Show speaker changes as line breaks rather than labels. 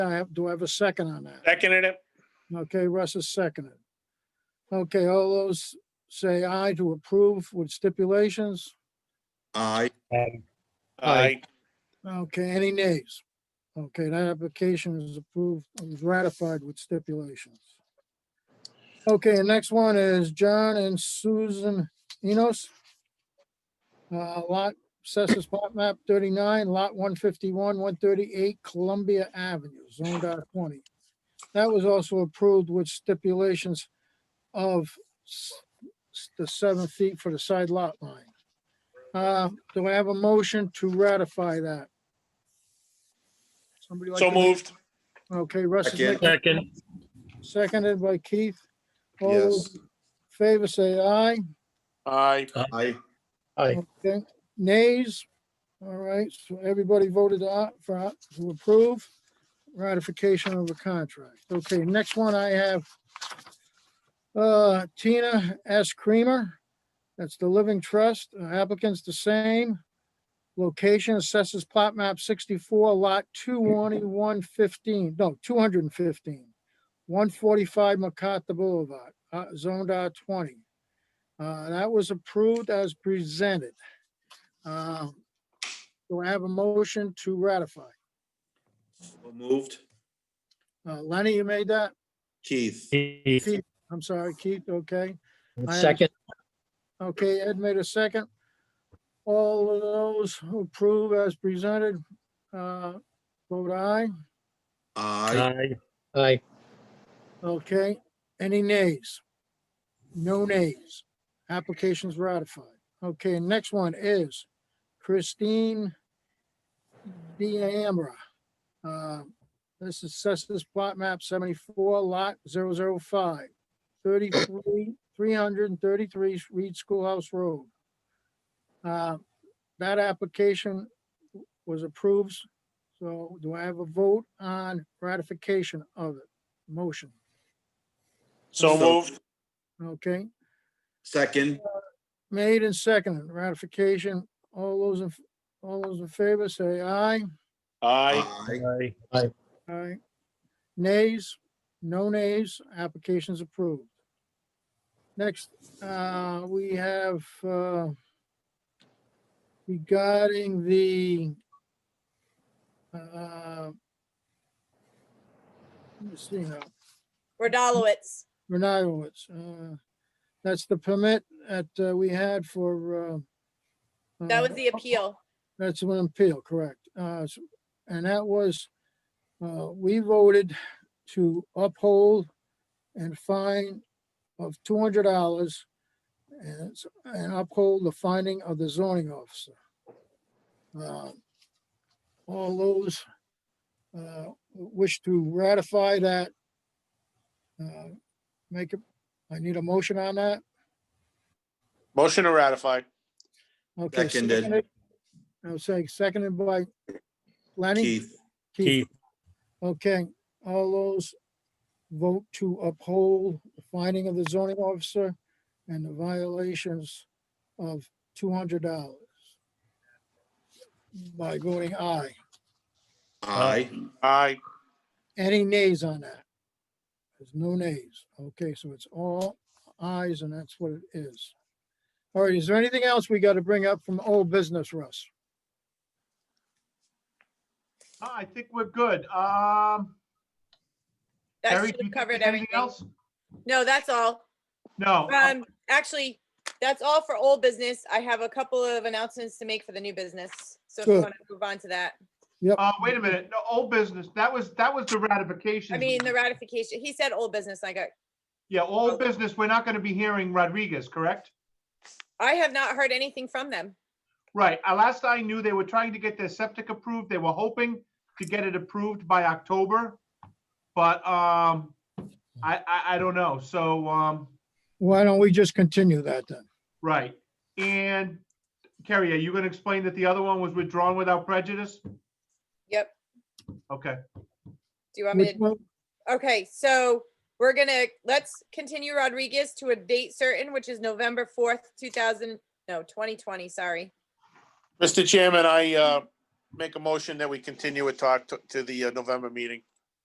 I have, do I have a second on that?
Seconded it.
Okay, Russ is seconded. Okay, all those say aye to approve with stipulations?
Aye,
Aye.
Okay, any nays? Okay, that application is approved, is ratified with stipulations. Okay, and next one is John and Susan Enos. Uh, lot, Cessus Plot Map thirty-nine, Lot one fifty-one, one thirty-eight Columbia Avenue, Zone R twenty. That was also approved with stipulations of s- s- the seven feet for the side lot line. Uh, do I have a motion to ratify that? Somebody like
So
to make-
moved.
Okay, Russ is
Second.
making-
Second,
seconded by Keith. All those
yes,
in Favor say aye.
Aye.
aye,
aye,
Okay, nays? All right, so everybody voted a- for, a- to approve ratification of the contract. Okay, next one I have uh, Tina S. Creamer, that's the Living Trust, Uh, applicant's the same. Location assesses plot map sixty-four, lot two-one-one fifteen, no, two hundred and fifteen. One forty-five MacArthur Boulevard, uh, zoned R twenty. Uh, that was approved as presented. Uh, Do I have a motion to ratify?
So moved,
Uh, Lenny, you made that?
Keith,
Keith.
Keith, I'm sorry, Keith, okay. I have-
Second,
Okay, Ed made a second. All of those who approve as presented, uh, vote aye.
aye,
aye, aye,
Okay, any nays? No nays. Application's ratified. Okay, next one is Christine D'Amra. Uh, This is Cessus Plot Map 74, Lot 005, 33, 333 Reed Schoolhouse Road. Uh, That application was approved, so do I have a vote on ratification of it? Motion.
So
So-
moved.
Okay,
second,
made and seconded, ratification, all those, in all those in favor say aye.
Aye.
aye,
aye, aye,
Aye. Nays, no nays, application's approved. Next, uh, we have, uh, regarding the, uh, let me see now.
Rodalowitz.
Renatowitz. uh, That's the permit that uh, we had for. uh,
That
uh,
was the
Mm-hmm.
appeal.
That's an appeal, correct. Uh, s- And that was, uh, we voted to uphold and fine of two hundred dollars and it's- and uphold the finding of the zoning officer. Uh, All those uh, wish to ratify that. uh, Make it, I need a motion on that.
Motion to ratify.
Okay,
Seconded.
I'll say seconded by Lenny.
Keith,
Keith,
Okay, all those vote to uphold the finding of the zoning officer and the violations of two hundred dollars by voting aye.
aye,
Aye.
Any nays on that? There's no nays. Okay, so it's all ayes and that's what it is. All right, is there anything else we got to bring up from old business, Russ?
Ah, I think we're good. Um,
That should
Terry, do you
have
think
covered
there's
everything.
anything else?
No, that's all.
No. uh,
Um, actually, that's all for old business. I have a couple of announcements to make for the new business. So if you
Sure.
want to move on to that.
Uh, wait a minute, no, old business. That was, that was the ratification.
I mean, the Oh. ratification, he said old business. I got,
Yeah, old business, we're not gonna be hearing Rodriguez, correct?
I have not heard anything from them.
Right, uh, last I knew, they were trying to get their septic approved. They were hoping to get it approved by October. But, um, I, I, I don't know, so, um,
Why don't we just continue that then?
right. And Kerry, are you gonna explain that the other one was withdrawn without prejudice?
Yep.
Okay,
Do you want me to?
Which one-
Okay, so we're gonna, let's continue Rodriguez to a date certain, which is November fourth, two thousand, no, twenty twenty, sorry.
Mr. Chairman, I uh, make a motion that we continue it talk to- to the uh, November meeting.